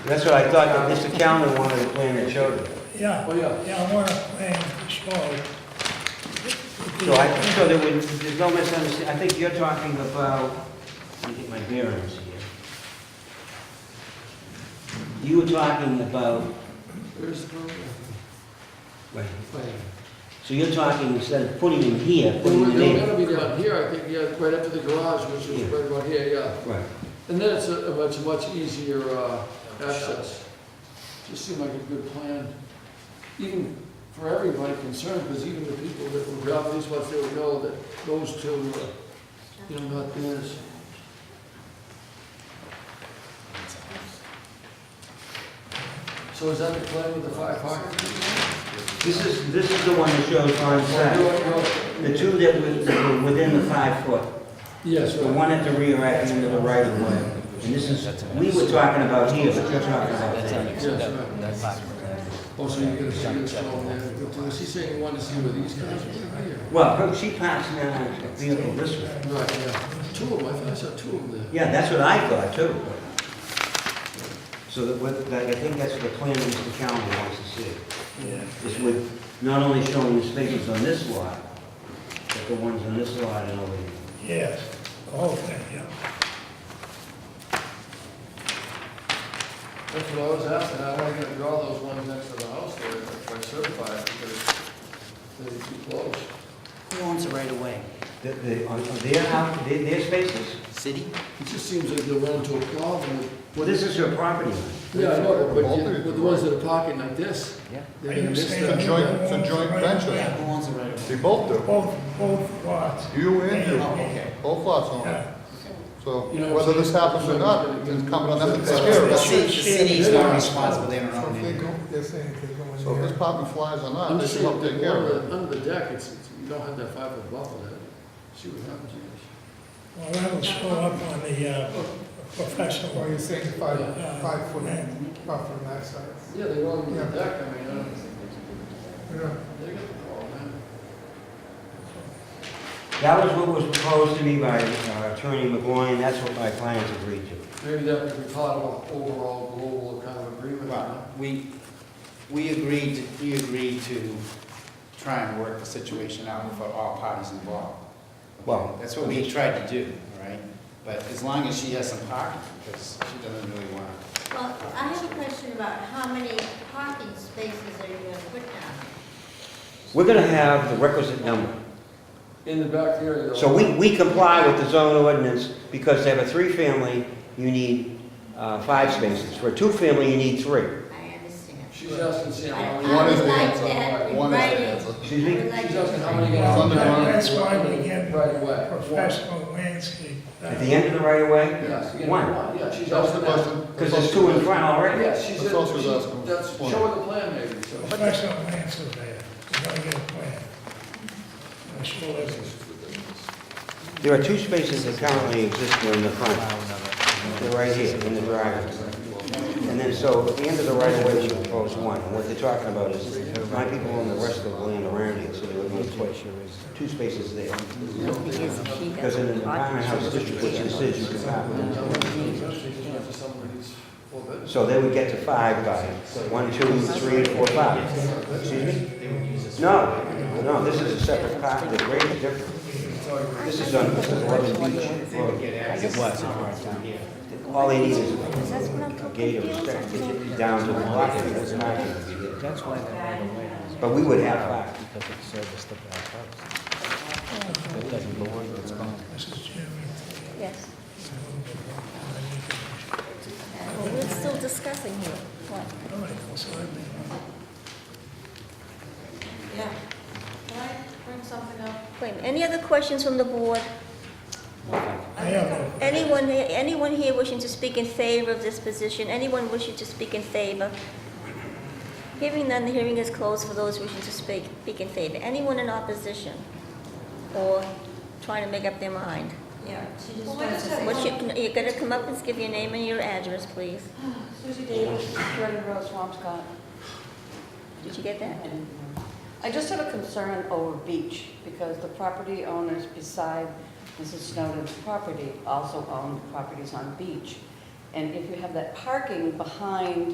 That's what I thought, that Mr. Callen wanted to plan that showed it. Yeah. Oh, yeah. Yeah, I want to plan the show. So I, so there would, there's no misunderstanding, I think you're talking about, let me get my bearings here. You were talking about, There's no plan. so you're talking, instead of putting them here, They putting were them they were there. gonna be down here, I think, yeah, right up to the garage, which is Yeah. right about here, yeah. Right. And then it's a a much, much easier uh, access. Just seemed like a good plan, even for everybody concerned, because even the people that were grabbing these ones, they would know that those two, uh, you know, not theirs. So is that the plan with the fire park? This is, this is the one that shows on site. The two that were, that were within the five foot, Yes, the right. one at the rear at the end of the right of way. And this is, we were talking about here, but you're talking about there. Yes, right. Oh, so you're gonna see this all there, was he saying he wanted to see where these guys were here? Well, her- she parks now her vehicle this way. Right, yeah, two of them, I thought I saw two of them there. Yeah, that's what I thought too. So that, what, that, I think that's the plan Mr. Callen wants to see, Yeah. is with not only showing the spaces on this lot, but the ones on this lot and over here. Yes, the whole thing, yeah. That's what I was asking, I wanted to draw those ones next to the house there, if I certify it, because they're too close. Who owns it right away? The, the, on on their house, their, their spaces? City? It just seems like they run into a problem with. Well, this is her property line. Yeah, I know, but you- with the ones that are parking like this, Yeah. they're gonna miss Are you that. It's a joint, it's a joint venture. Who owns it right away? They both do. Both, both lots. You and you. Oh, okay. Both lots own it. Yeah. So You know, whether this happens or not, it's coming on them to take care of The it. city, the city is not responsible, they don't own it. Oh, So if this popping flies or not, I'm they just should saying, help take the care of one it. under the deck, it's, it's- you don't have that five foot buffer there. See what happens, you Well, that'll show up on the uh, professional. Well, Oh, you're saying five, uh, five foot plan. buffer on that side. guys. Yeah, they run on the Yeah. deck, I mean, I don't, Yeah. they got the ball, man. That was what was proposed to me by uh, Attorney McGuire, and that's what my clients agreed to. Maybe that could be part of an overall global kind of agreement, you know? We, we agreed, to- we agreed to try and work the situation out for all parties involved. Well, That's what we tried to do, all right? But as long as she has some parking, because she doesn't really want to. Well, I have a question about how many parking spaces are you going to put down? We're gonna have the requisite number. In the back area. though. So we, we comply with the zone ordinance because to have a three-family, you need uh, five spaces. For a two-family, you need three. I understand. She's asking, see I how I many. One is would the like answer. that in One is the writing. answer. Excuse me? I would like She's to- asking how many got It's on under the ground. That's why we get Right away. professional landscape. uh, At the end of the right of way? Yes, you get One. one, yeah, she's That was the asking that. question. Because there's two in front already. Yeah, she's, That's also she's- asking. that's, One. show her the plan maybe, so. Professional land surveyor, you gotta get a plan. I'm sure that's There are two spaces that currently exist in the front. They're right here, in the driveway. And then, so at the end of the right of way, you propose one. And what they're talking about is, my people own the rest of the land around it, so they would need twice, two spaces there. Because in an apartment house district, which this is, you can have. For some of these four bedrooms. So they would get to five by, one, two, three, four, five. Excuse me? No, no, this is a separate part, the grade is different. This is on, this is eleven beach. Road. It was. Yeah. All they need is a gate of respect to get down to the block, and it's not gonna be there. That's why that right away is But we would have five. because it serviced the back house. That doesn't lower the response. Mrs. Chairman. Yes. Well, we're still discussing here. What? All right, so I mean, Yeah. Can I bring something up? Wait, any other questions from the board? I have, no- Anyone, anyone here wishing to speak in favor of this position? Anyone wishing to speak in favor? Hearing none, the hearing is closed for those wishing to speak, speak in favor. Anyone in opposition? Or trying to make up their mind? Yeah, she just Well, wants to what is say. that What's your, you're gonna come up and give your name and your address, please. Susie Davis, Jordan Road, Swampscott. Did you get that? I just have a concern over Beach, because the property owners beside Mrs. Snowden's property also own properties on Beach. And if you have that parking behind